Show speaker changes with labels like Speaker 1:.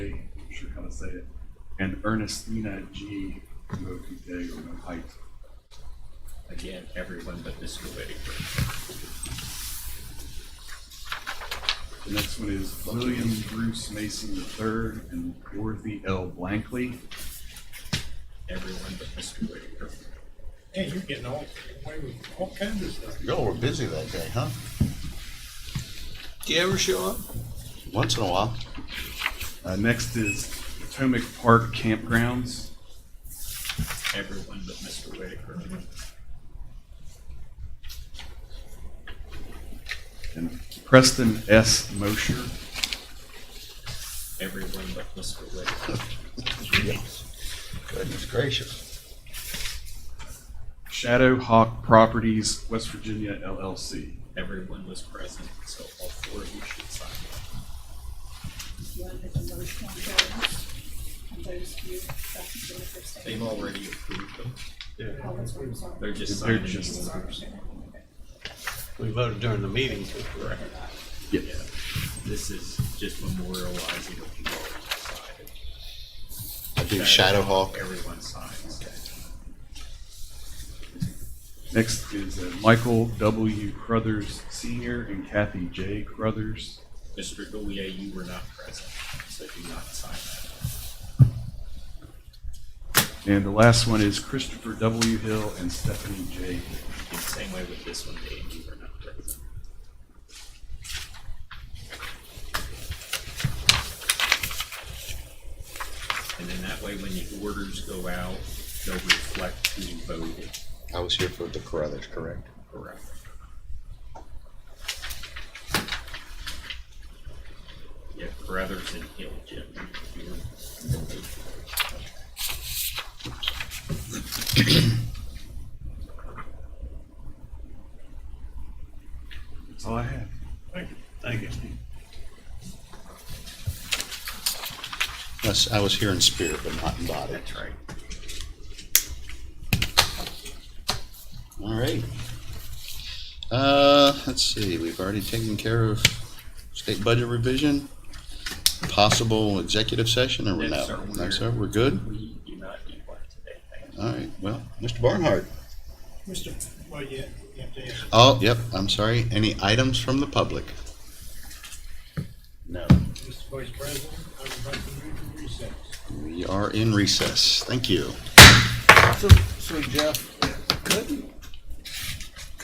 Speaker 1: sure how to say it, and Ernestina G. Mokitego Height.
Speaker 2: Again, everyone but Mr. Whitaker.
Speaker 1: The next one is William Bruce Mason III and Dorothy L. Blankley.
Speaker 2: Everyone but Mr. Whitaker.
Speaker 3: Hey, you're getting all, away with all kinds of stuff.
Speaker 4: Y'all were busy that day, huh?
Speaker 5: Do you ever show up?
Speaker 4: Once in a while.
Speaker 1: Uh, next is Potomac Park Campgrounds.
Speaker 2: Everyone but Mr. Whitaker.
Speaker 1: And Preston S. Mosher.
Speaker 2: Everyone but Mr. Whitaker.
Speaker 4: Goodness gracious.
Speaker 1: Shadow Hawk Properties, West Virginia LLC.
Speaker 2: Everyone was present, so all four of you should sign.
Speaker 6: You want to put the motion on those, on those few sections of the first statement?
Speaker 2: They've already approved them.
Speaker 6: All those ones are-
Speaker 2: They're just
Speaker 1: They're
Speaker 2: signing.
Speaker 1: just-
Speaker 2: these.
Speaker 4: We voted during the meeting.
Speaker 2: Correct.
Speaker 1: Yep.
Speaker 2: Yeah. This is just memorializing what you already decided.
Speaker 4: I do Shadow Hawk.
Speaker 2: Everyone signs.
Speaker 1: Next is uh, Michael W. Crothers Sr. and Kathy J. Crothers.
Speaker 2: Mr. Gouye, you were not present, so do not sign that.
Speaker 1: And the last one is Christopher W. Hill and Stephanie J.
Speaker 2: In the same way with this one, Dave, you were not present. um, And then that way, when the orders go out, they'll reflect who voted
Speaker 4: I was here for the Carruthers, correct?
Speaker 2: correct. Yeah, Brothers and Hill, Jim. you were-
Speaker 1: That's all I have.
Speaker 3: Thank you.
Speaker 4: Yes, I was here in spirit, but not in body.
Speaker 2: That's right.
Speaker 4: All right. Uh, let's see, we've already taken care of state budget revision, possible executive session, or we're
Speaker 2: No,
Speaker 4: not?
Speaker 2: sir,
Speaker 4: No,
Speaker 2: we're-
Speaker 4: sir, we're good?
Speaker 2: We do not need one today, thank you.
Speaker 4: All right, well, Mr. Barnhart.
Speaker 3: Mr. Well, yeah, you have to ask.
Speaker 4: Oh, yep, I'm sorry. Any items from the public? No.
Speaker 3: Mr. Vice President, I would like to move to recess.
Speaker 4: We are in recess. Thank you.
Speaker 7: So, so Jeff, couldn't